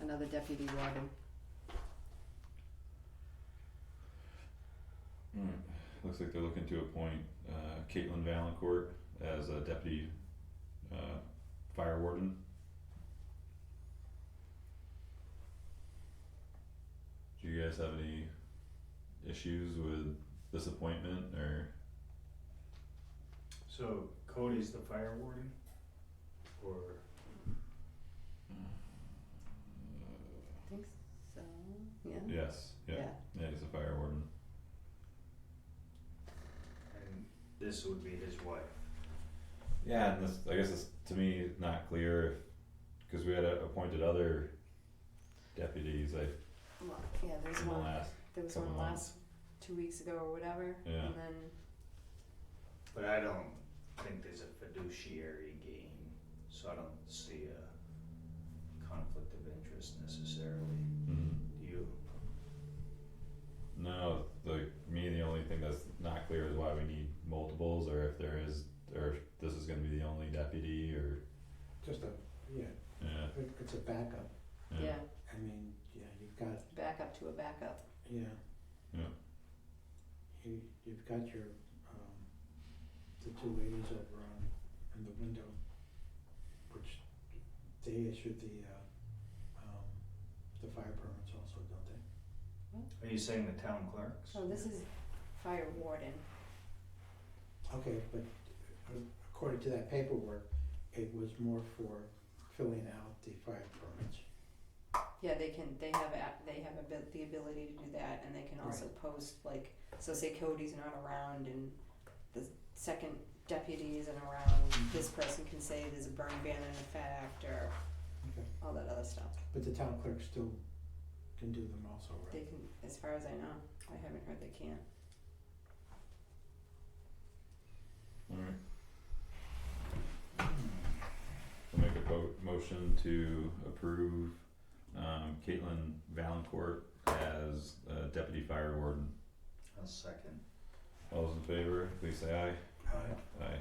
another deputy warden. Alright, Mm. looks like they're looking to appoint uh Caitlin Valancourt as a deputy uh fire warden. Do you guys have any issues with this appointment or, So Cody's the fire warden? Or, I think so, yeah? yes, yeah, yeah, he's a fire warden, and this would be his wife? yeah, and this, I guess it's to me not clear if, cause we had uh, appointed other deputies like Well, yeah, there's in the one, last, there was couple one last months. two weeks ago or whatever, Yeah. and then, But I don't think there's a fiduciary gain, so I don't see a conflict of interest necessarily. Mhm. Do you? No, like me, the only thing that's not clear is why we need multiples, or if there is, or if this is gonna be the only deputy, or, Just a, yeah, yeah, it, it's a backup. yeah, I mean, yeah, you've got, backup to a backup, yeah. Yeah. You, you've got your, um, the two ladies over on, in the window, which they issued the, uh, um, the fire permits also, don't they? Are you saying the town clerks? so Oh, this is fire warden, Okay, but uh, according to that paperwork, it was more for filling out the fire permits. yeah, they can, they have a, they have abil- the ability to do that, and they can also post, like, so say Cody's not around and the second deputy isn't around, Mm-hmm. this person can say there's a burn ban in effect, or Okay. all that other stuff, But the town clerk still can do them also, they right? can, as far as I know, I haven't heard they can't. alright. I'll make a vote, motion to approve, um, Caitlin Valancourt as, uh, deputy fire warden. A second. All those in favor, please say aye. Aye. Aye.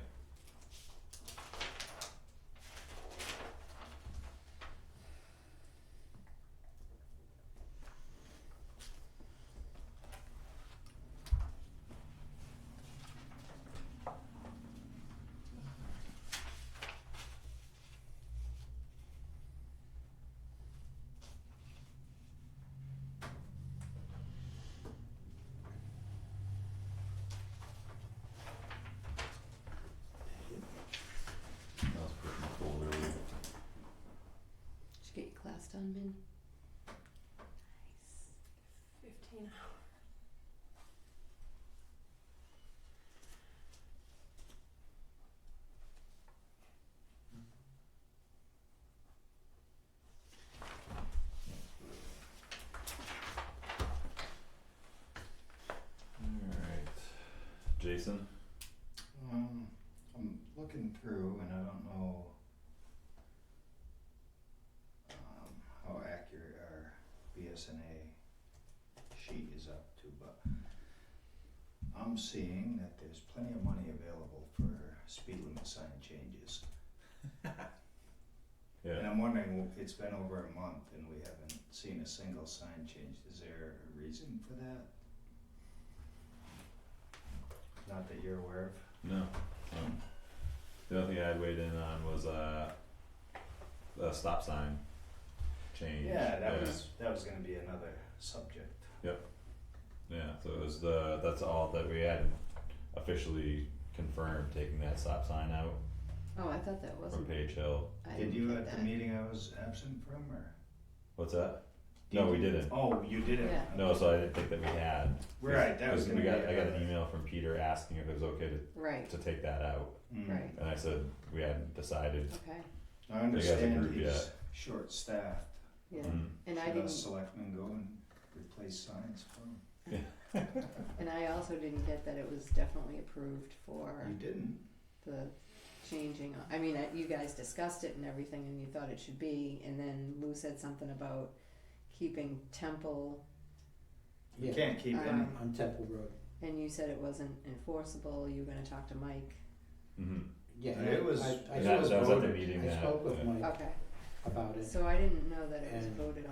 That was pretty cool, really. Did you get your class done, Min? Fifteen hours. Alright, Jason, Um, I'm looking through and I don't know um, how accurate our BSNA sheet is up to, but I'm seeing that there's plenty of money available for speed limit sign changes. And yeah, I'm wondering, well, it's been over a month and we haven't seen a single sign change. Is there a reason for that? Not that you're aware of? no, um, the only thing I had weighed in on was, uh, a stop sign change. Yeah, that was that was gonna be another subject. Yeah, so it was the, that's all that we had officially confirmed, taking that stop sign out Oh, I thought that from wasn't. Page Hill. I Did didn't you get at the that. meeting I was absent from, or? What's that? No, we didn't. Oh, you didn't. Yeah. No, so I didn't think that we had. 'cause- Right, that was 'cause gonna we be. got, I got another- an e- email from Peter asking if it was okay to, Right, to take that out, Mm. Right. and I said, we hadn't decided. okay, I guys understand approved he's yet. short-staffed. yeah, Mm. and I Should us didn't, selectmen go and replace signs for him? and I also didn't get that it was definitely approved for You didn't. the changing, I mean, uh, you guys discussed it and everything and you thought it should be, and then Lou said something about keeping Temple, You Yeah. can't keep any. Um, On Temple Road, and you said it wasn't enforceable, you were gonna talk to Mike, Mm-hmm. yeah. And it was- I- I That- spoke- that was at the meeting I that- spoke with yeah. Mike okay, about it. so I didn't know that it was And- voted on.